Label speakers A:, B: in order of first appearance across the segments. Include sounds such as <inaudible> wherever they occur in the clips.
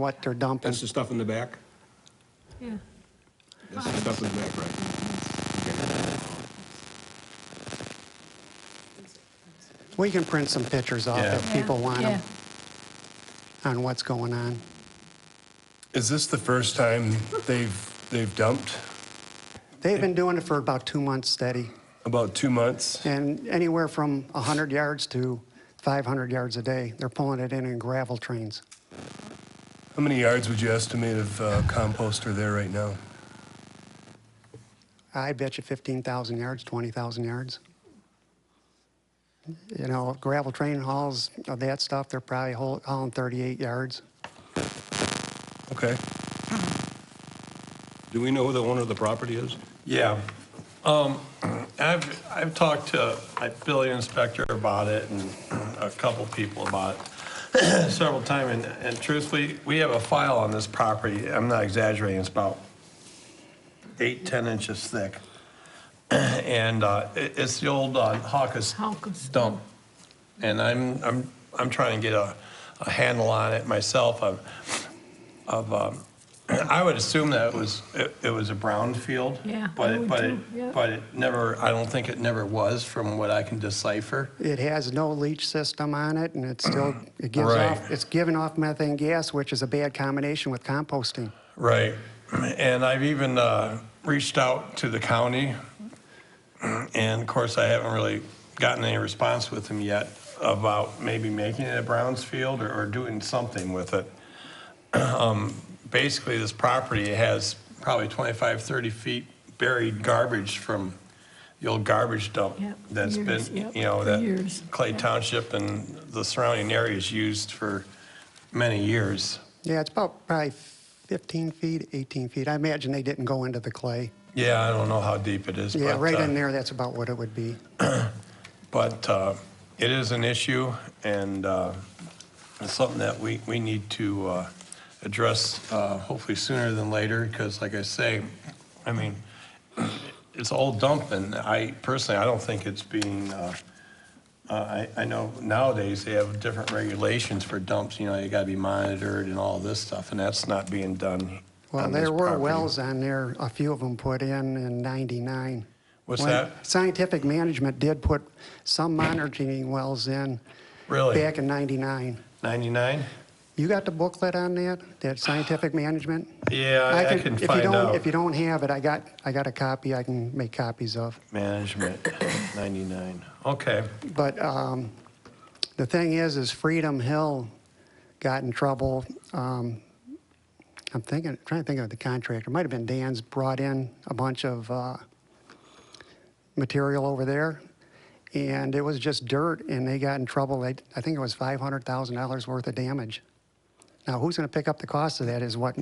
A: what they're dumping.
B: That's the stuff in the back?
C: Yeah.
B: That's the stuff in the back, right?
A: We can print some pictures off
D: Yeah.
A: if people want
C: Yeah.
A: them on what's going on.
D: Is this the first time they've, they've dumped?
A: They've been doing it for about two months steady,
D: About two months?
A: and anywhere from 100 yards to 500 yards a day. They're pulling it in in gravel trains.
D: How many yards would you estimate of uh, compost are there right now?
A: I bet you 15,000 yards, 20,000 yards. You know, gravel train hauls of that stuff, they're probably haul- hauling 38 yards.
D: Okay.
B: Do we know who the owner of the property is?
E: Yeah. Um, I've, I've talked to a building inspector about it and a couple people about it <clears throat> several times. And, and truthfully, we have a file on this property. I'm not exaggerating. It's about eight, 10 inches thick. <clears throat> And, uh, it, it's the old uh, Hawkus
C: Hawkus.
E: dump. And I'm, I'm, I'm trying to get a, a handle on it myself. Of, of, um, <clears throat> I would assume that it was, it, it was a brown field.
C: Yeah, I
E: But it,
C: would
E: but
C: too, yeah.
E: it, but it never, I don't think it never was from what I can decipher.
A: It has no leach system on it, and it's still, it gives off,
E: Right.
A: it's giving off methane gas, which is a bad combination with composting.
E: Right. And I've even, uh, reached out to the county. And of course, I haven't really gotten any response with them yet about maybe making it a Browns field or, or doing something with it. <clears throat> Um, basically this property has probably 25, 30 feet buried garbage from the old garbage dump
C: Yep,
E: that's
C: years,
E: been,
C: yep,
E: you know,
C: for
E: that
C: years,
E: Clay
C: yep.
E: Township and the surrounding areas used for many years.
A: Yeah, it's about probably 15 feet, 18 feet. I imagine they didn't go into the clay.
E: Yeah, I don't know how deep it is.
A: Yeah,
E: but,
A: right
E: uh,
A: in there, that's about what it would be.
E: But uh, it is an issue, and uh, it's something that we, we need to uh, address uh, hopefully sooner than later, because like I say, I mean, it's all dump, and I personally, I don't think it's being, uh, uh, I, I know nowadays they have different regulations for dumps, you know, you gotta be monitored and all this stuff, and that's not being done
A: Well,
E: on this
A: there were
E: property.
A: wells on there, a few of them put in in 99.
E: What's
A: When
E: that?
A: Scientific management did put some monitoring wells in
E: Really?
A: back in 99.
E: 99?
A: You got the booklet on that, that scientific management?
E: Yeah, I I can
A: if you
E: find
A: don't-
E: out.
A: If you don't have it, I got, I got a copy I can make copies of.
E: Management, 99. Okay.
A: But um, the thing is, is Freedom Hill got in trouble. Um, I'm thinking, trying to think of the contractor. Might have been Dan's brought in a bunch of uh, material over there, and it was just dirt, and they got in trouble. They, I think it was five hundred thousand dollars worth of damage. Now, who's going to pick up the cost of that? Is what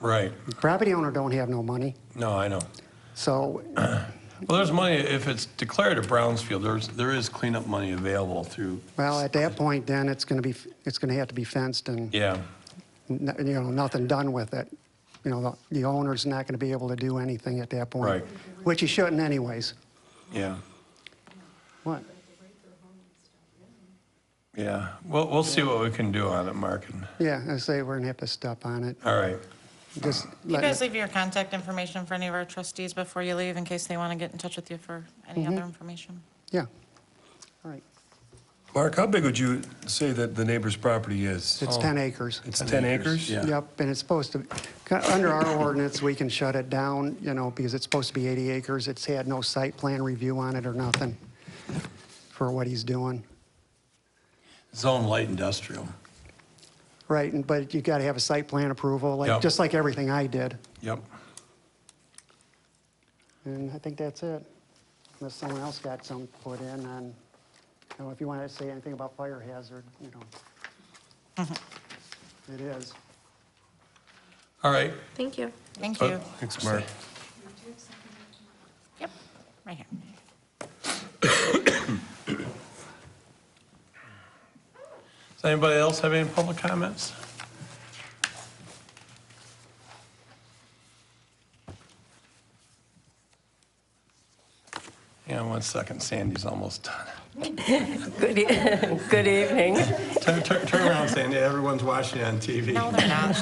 E: Right.
A: property owner don't have no money.
E: No, I know.
A: So
E: Well, there's money, if it's declared a Brownsfield, there's, there is cleanup money available through,
A: Well, at that point, then it's going to be, it's going to have to be fenced and,
E: yeah,
A: n- you know, nothing done with it. You know, the- the owner's not going to be able to do anything at that point.
E: Right.
A: Which he shouldn't anyways.
E: yeah,
A: What?
E: yeah. We'll, we'll see what we can do on it, Mark. and-
A: Yeah, I say we're going to have to step on it.
E: All right.
A: Just
F: You
A: let-
F: guys leave your contact information for any of our trustees before you leave in case they want to get in touch with you for any other information.
A: Yeah. All right.
D: Mark, how big would you say that the neighbor's property is?
A: It's 10 Oh. acres.
D: It's 10 acres?
E: Oh. Yeah.
A: Yep, and it's supposed to, ca- under our ordinance, we can shut it down, you know, because it's supposed to be 80 acres. It's had no site plan review on it or nothing for what he's doing.
E: Zone light industrial.
A: Right, and, but you gotta have a site plan approval, like,
E: Yep.
A: just like everything I did.
E: Yep.
A: And I think that's it. Unless someone else got some put in on, you know, if you wanna say anything about fire hazard, you know. It is.
E: All right.
G: Thank you.
E: Uh,
F: Thank you.
D: Thanks, Mark.
F: Yep, right here.
E: Does anybody else have any public comments? Yeah, one second, Sandy's almost done.
G: <laughs> Good, e- good evening.
E: Turn, turn turn around, Sandy, everyone's watching on TV.
F: No, they're not.